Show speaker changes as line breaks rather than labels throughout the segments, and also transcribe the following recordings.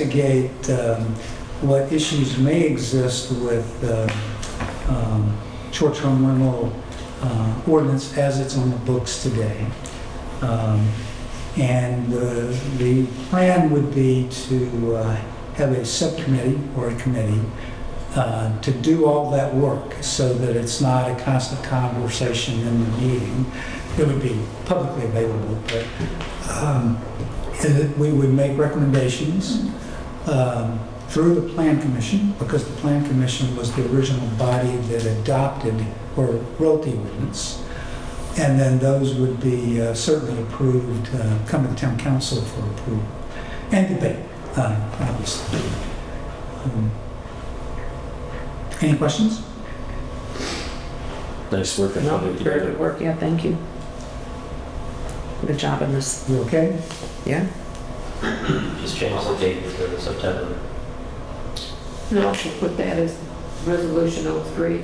investigate um, what issues may exist with uh, um, short-term rental uh, ordinance as it's on the books today. Um, And uh, the plan would be to uh, have a subcommittee or a committee uh, to do all that work so that it's not a constant conversation in the meeting. It would be publicly available, but um, and that we would make recommendations um, through the Plan Commission, because the Plan Commission was the original body that adopted or wrote the ordinance. And then those would be uh, certainly approved, uh, come to town council for approval and debate, uh, obviously. Um, Any questions?
Nice work.
No, very good work, yeah, thank you. Good job on this,
You okay?
yeah?
Just change the date to September.
And also put that as resolution 03.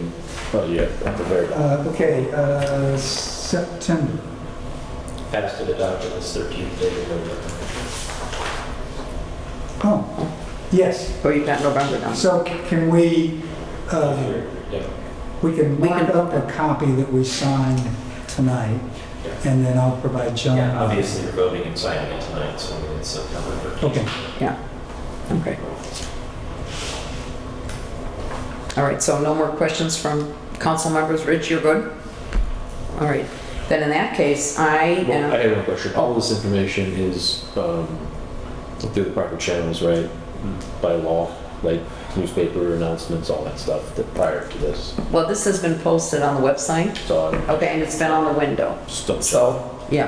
Oh, yeah, at the very
Uh, Okay, uh, September.
Passed and adopted this 13th day of November.
Oh, yes.
Oh, you got November down.
So can we, uh,
Yeah.
we can
We can-
mark up a copy that we signed tonight, and then I'll provide John.
Yeah, obviously, you're voting and signing it tonight, so it's September 13th.
Okay.
Okay. All right, so no more questions from council members. Rich, you're good? All right, then in that case, I uh,
Well, I
am,
have one question. All this information is um, through the proper channels, right?
Mm-hmm.
By law, like newspaper announcements, all that stuff that prior to this.
well, this has been posted on the website,
So I
okay, and it's been on the window.
just don't
So, yeah,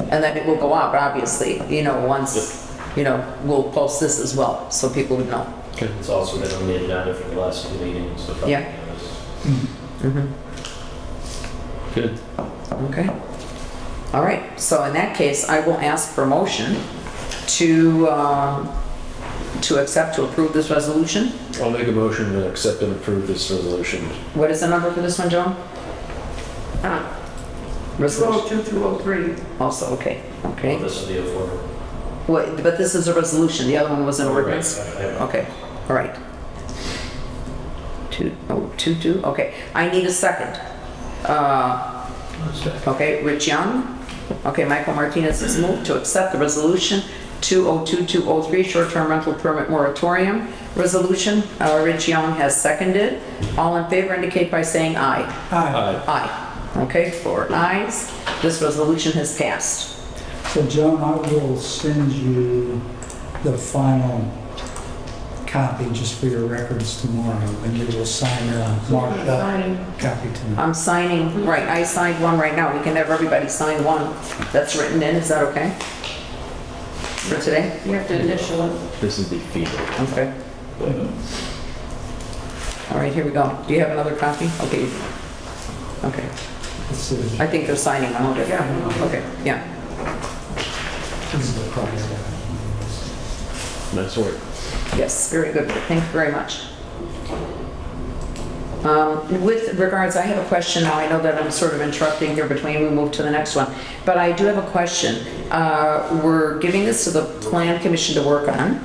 and then it will go up, obviously, you know, once, you know, we'll post this as well, so people would know.
It's also been on the agenda for the last two meetings, so. probably uh,
Yeah.
it was-
Mhm.
Good.
Okay. All right, so in that case, I will ask for motion to, um, to accept, to approve this resolution.
I'll make a motion to accept and approve this resolution.
What is the number for this one, Joan?
Ah,
Resolution,
02 through 03.
also, okay,
Well,
okay.
this will be a forward.
Wait, But this is a resolution, the other one was an ordinance?
Right, right, right.
Okay, all right. Two, oh, two, two, okay. I need a second. Uh, Okay, Rich Young. Okay, Michael Martinez has moved to accept the resolution 202203, short-term rental permit moratorium resolution. Uh, Rich Young has seconded. All in favor indicate by saying aye.
Aye.
Uh,
Aye.
Aye. Okay, four ayes. This resolution has passed.
So Joan, I will send you the final copy just for your records tomorrow, and you will sign a marked up
Signing.
copy tonight.
I'm signing, right, I signed one right now. We can have everybody sign one that's written in. Is that okay? For today?
You have to initial it.
This is the FEMA.
Okay. All right, here we go. Do you have another copy? Okay. Okay.
This is,
I think they're signing on it.
Yeah.
Okay, yeah.
this is the price.
Nice work.
Yes, very good. Thank you very much. Um, With regards, I have a question now. I know that I'm sort of interrupting here between we move to the next one, but I do have a question. Uh, We're giving this to the Plan Commission to work on,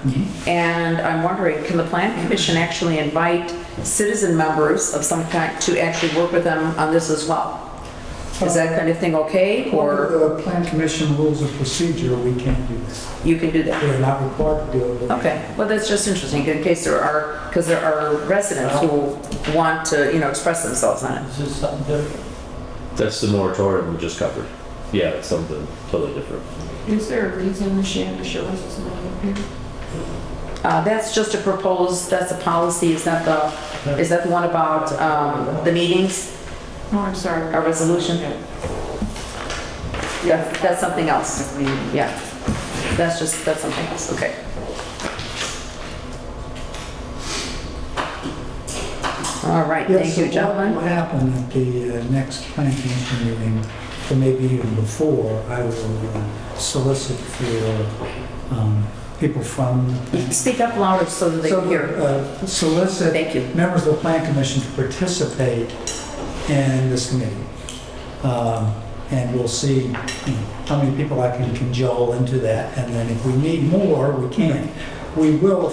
and I'm wondering, can the Plan Commission actually invite citizen members of some kind to actually work with them on this as well? Is that kind of thing okay, or
Under the Plan Commission rules of procedure, we can't do this.
you can do that?
We're not required to do it. but we
Okay, well, that's just interesting, in case there are, because there are residents who want to, you know, express themselves on it.
This is something different.
That's the moratorium we just covered. Yeah, it's something totally different.
Is there a reason the Shannon Show is not up here?
Uh, That's just a proposed, that's a policy, is that the, is that the one about um, the meetings,
Oh, I'm sorry.
a resolution? Yeah, that's something else,
Yes.
yeah. That's just, that's something else, okay. All right,
Yeah,
thank
so
you, gentlemen.
What will happen at the uh, next plan commission meeting, or maybe even before, I will uh, solicit for um, people from,
Speak up louder so that they
so
can hear.
uh, solicit
Thank you.
members of the plan commission to participate in this committee. Um, And we'll see you know, how many people I can cajole into that, and then if we need more, we can. we will,